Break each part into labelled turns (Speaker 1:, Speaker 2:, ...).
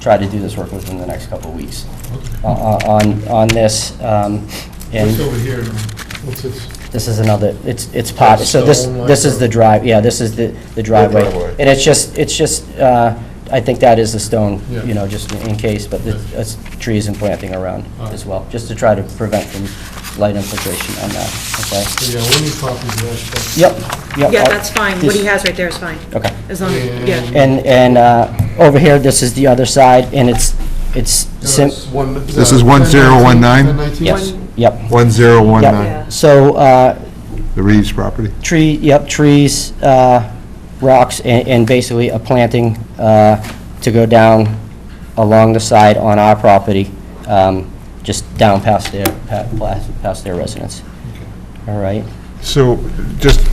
Speaker 1: try to do this work within the next couple of weeks uh, on, on this. um,
Speaker 2: What's
Speaker 1: And
Speaker 2: over here, now? what's this?
Speaker 1: this is another, it's, it's pot,
Speaker 2: That's
Speaker 1: so this,
Speaker 2: stone, like,
Speaker 1: this is
Speaker 2: or-
Speaker 1: the drive, yeah, this is the the driveway.
Speaker 2: driveway.
Speaker 1: And it's just, it's just, uh, I think that is the stone,
Speaker 2: Yeah.
Speaker 1: you know, just in case, but the
Speaker 2: Yeah.
Speaker 1: it's trees and planting around
Speaker 2: Alright.
Speaker 1: as well, just to try to prevent from light infiltration on that, okay?
Speaker 2: So, Oh, yeah, we need copies of that stuff.
Speaker 1: Yep, yep.
Speaker 3: Yeah,
Speaker 1: I'll-
Speaker 3: that's fine. What he
Speaker 1: this-
Speaker 3: has right there is fine.
Speaker 1: Okay.
Speaker 3: As long, as yeah.
Speaker 1: And, and uh, over here, this is the other side, and it's, it's,
Speaker 2: No,
Speaker 1: sim-
Speaker 2: it's one-
Speaker 4: This is
Speaker 2: uh,
Speaker 4: 1019?
Speaker 2: 1019?
Speaker 1: yes, yep,
Speaker 4: 1019,
Speaker 3: Yeah.
Speaker 1: yep. So, uh,
Speaker 4: the Reeves property.
Speaker 1: tree, yep, trees, uh, rocks, and and basically a planting uh, to go down along the side on our property, um, just down past their, pa- past past their residence. All right?
Speaker 4: So, just,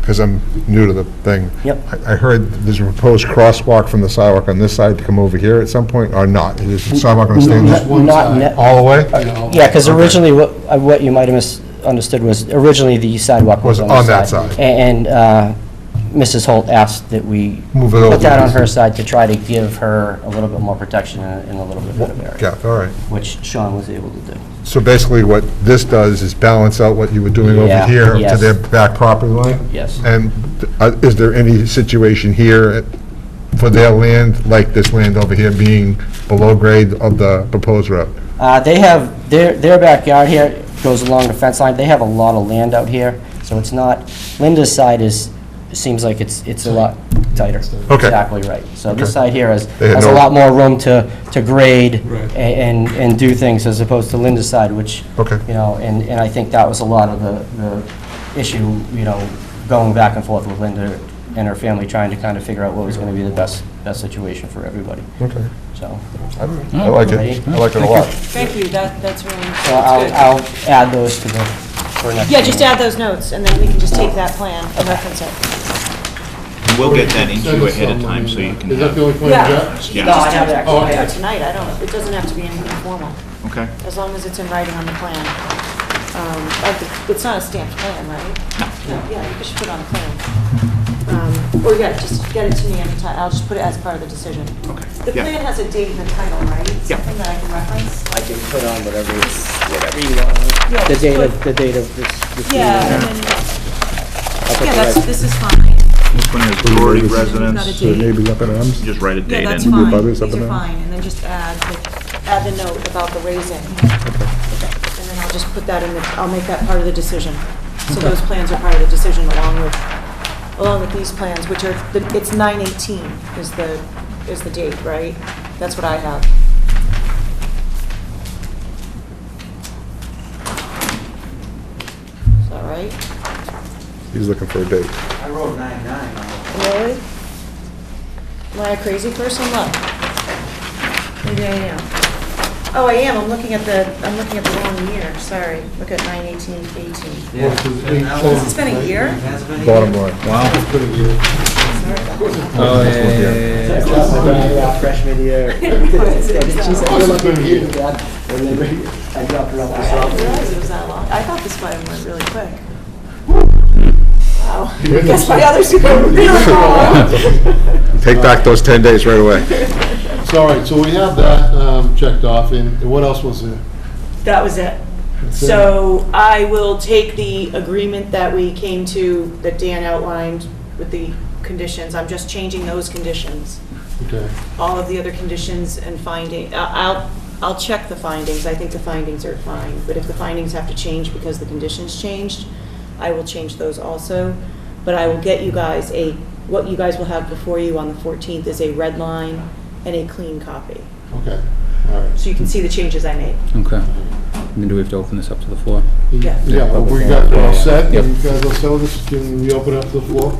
Speaker 4: because I'm new to the thing.
Speaker 1: Yep.
Speaker 4: I I heard there's a proposed crosswalk from the sidewalk on this side to come over here at some point, or not? Is the sidewalk going to stay in
Speaker 2: Just
Speaker 4: that
Speaker 2: one
Speaker 1: Not
Speaker 2: side.
Speaker 1: ne-
Speaker 4: all the way?
Speaker 2: Yeah, all-
Speaker 1: Yeah, because
Speaker 4: Okay.
Speaker 1: originally, what, uh, what you might have misunderstood was, originally the sidewalk was on this side.
Speaker 4: that side.
Speaker 1: A- And uh, Mrs. Holt asked that we
Speaker 4: Move it over.
Speaker 1: put that on her side to try to give her a little bit more protection and and a little bit better area,
Speaker 4: Yeah, all right.
Speaker 1: which Sean was able to do.
Speaker 4: So basically, what this does is balance out what you were doing over
Speaker 1: Yeah,
Speaker 4: here to
Speaker 1: yes.
Speaker 4: their back property line?
Speaker 1: Yes.
Speaker 4: And uh, is there any situation here for their land, like this land over here being below grade of the proposed road?
Speaker 1: Uh, They have, their, their backyard here goes along the fence line. They have a lot of land out here, so it's not, Linda's side is, seems like it's, it's a lot tighter.
Speaker 4: Okay.
Speaker 1: Exactly right. So this
Speaker 4: Okay.
Speaker 1: side here has,
Speaker 4: They had
Speaker 1: has a
Speaker 4: no-
Speaker 1: lot more room to, to grade
Speaker 2: Right.
Speaker 1: a- and, and do things as opposed to Linda's side, which,
Speaker 4: Okay.
Speaker 1: you know, and, and I think that was a lot of the, the issue, you know, going back and forth with Linda and her family, trying to kind of figure out what was going to be the best, best situation for everybody,
Speaker 4: Okay.
Speaker 1: so.
Speaker 4: I like it. I like it a lot.
Speaker 3: Thank you, that, that's really,
Speaker 1: So Uh, I'll, I'll add those to the, for next.
Speaker 3: Yeah, just add those notes, and then we can just take that plan and reference it.
Speaker 5: And We'll get that into
Speaker 2: Send
Speaker 5: you
Speaker 2: us
Speaker 5: ahead of
Speaker 2: some,
Speaker 5: time
Speaker 2: I
Speaker 5: so
Speaker 2: mean,
Speaker 5: you can
Speaker 2: Is that
Speaker 5: have.
Speaker 2: the only plan you
Speaker 3: Yeah.
Speaker 2: got?
Speaker 3: You
Speaker 5: Yeah.
Speaker 3: just have to
Speaker 2: Oh, okay.
Speaker 3: declare tonight, I don't, it doesn't have to be anything formal,
Speaker 5: Okay.
Speaker 3: as long as it's in writing on the plan. Um, like, it's- It's not a stamped plan, right? No. Yeah, you should put it on a plan. Um, Or, yeah, just get it to me anytime, I'll just put it as part of the decision.
Speaker 5: Okay.
Speaker 3: The
Speaker 5: Yeah.
Speaker 3: plan has a date and a title, right?
Speaker 5: Yeah.
Speaker 3: Something that I can reference?
Speaker 1: I can put on whatever, whatever you want.
Speaker 3: Yeah,
Speaker 1: The
Speaker 3: just
Speaker 1: date
Speaker 3: put-
Speaker 1: of, the date of this. this
Speaker 3: Yeah,
Speaker 1: meeting.
Speaker 3: and then,
Speaker 1: I'll put
Speaker 3: yeah,
Speaker 1: the
Speaker 3: that's,
Speaker 1: right-
Speaker 3: this is fine.
Speaker 5: This one is Dory
Speaker 3: Got a
Speaker 5: residence,
Speaker 3: date.
Speaker 4: up in arms?
Speaker 5: just write a
Speaker 3: Yeah,
Speaker 5: date
Speaker 3: that's
Speaker 5: in.
Speaker 3: fine.
Speaker 4: butters
Speaker 3: These
Speaker 4: up
Speaker 3: are
Speaker 4: and down?
Speaker 3: fine, and then just add, the- add the note about the raising. And then I'll just put that in the, I'll make that part of the decision. So those plans are part of the decision along with, along with these plans, which are, the- it's 9/18 is the, is the date, right? That's what I have. Is that right?
Speaker 4: He's looking for a date.
Speaker 6: I wrote nine nine on
Speaker 3: Really? Am I a crazy person? Look. Maybe I am. Oh, I am. I'm looking at the, I'm looking at the wrong year. Sorry. Look at nine eighteen eighteen.
Speaker 6: it. Yeah.
Speaker 2: This is
Speaker 6: And that
Speaker 2: 810.
Speaker 6: was-
Speaker 3: This has been a year?
Speaker 6: Has been a
Speaker 4: Bottom
Speaker 6: year.
Speaker 4: line.
Speaker 2: It's pretty good.
Speaker 7: Oh, yeah, yeah, yeah, yeah.
Speaker 8: freshman year.
Speaker 2: It's pretty good.
Speaker 8: I dropped her off
Speaker 3: I didn't realize it was that long. I thought this might have went really quick. Wow. I Guess my others who go really long.
Speaker 4: Take back those 10 days right away.
Speaker 2: So, all right, so we have that um, checked off, and what else was there?
Speaker 3: That was it. So I will take the agreement that we came to, that Dan outlined with the conditions. I'm just changing those conditions.
Speaker 2: Okay,
Speaker 3: all of the other conditions and finding, I- I'll, I'll check the findings, I think the findings are fine, but if the findings have to change because the conditions changed, I will change those also, but I will get you guys a, what you guys will have before you on the 14th is a red line and a clean copy,
Speaker 2: okay, all right.
Speaker 3: so you can see the changes I made.
Speaker 7: Okay. Then do we have to open this up to the floor?
Speaker 3: Yeah.
Speaker 2: Yeah, well, we got it all set,
Speaker 7: Yep.
Speaker 2: you guys all set with this, can we open up the floor?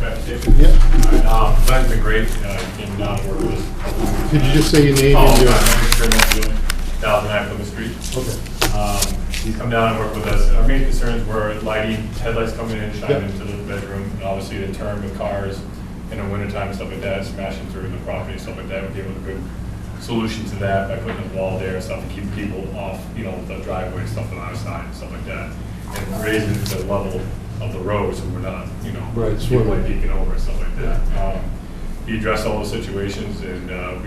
Speaker 9: That's
Speaker 2: Yeah,
Speaker 9: been great, uh, came down to work with.
Speaker 2: could you just say your name and
Speaker 9: Oh,
Speaker 2: your?
Speaker 9: I'm Richard thousand nine Plymouth Street.
Speaker 2: Okay.
Speaker 9: Um, He's come down and worked with us. Our main concerns were lighting, headlights coming in, shining
Speaker 2: Yep.
Speaker 9: into the bedroom, and obviously the turn with cars in the wintertime, stuff like that, smashing through the property, and stuff like that. We gave them a good solution to that by putting a wall there, and stuff to keep people off, you know, the driveway, and stuff on our side, and stuff like that. And raising the level of the road, so we're not, you know,
Speaker 2: Right,
Speaker 9: people
Speaker 2: swimming.
Speaker 9: like peeking over and stuff like that. Um, He addressed all those situations, and uh, we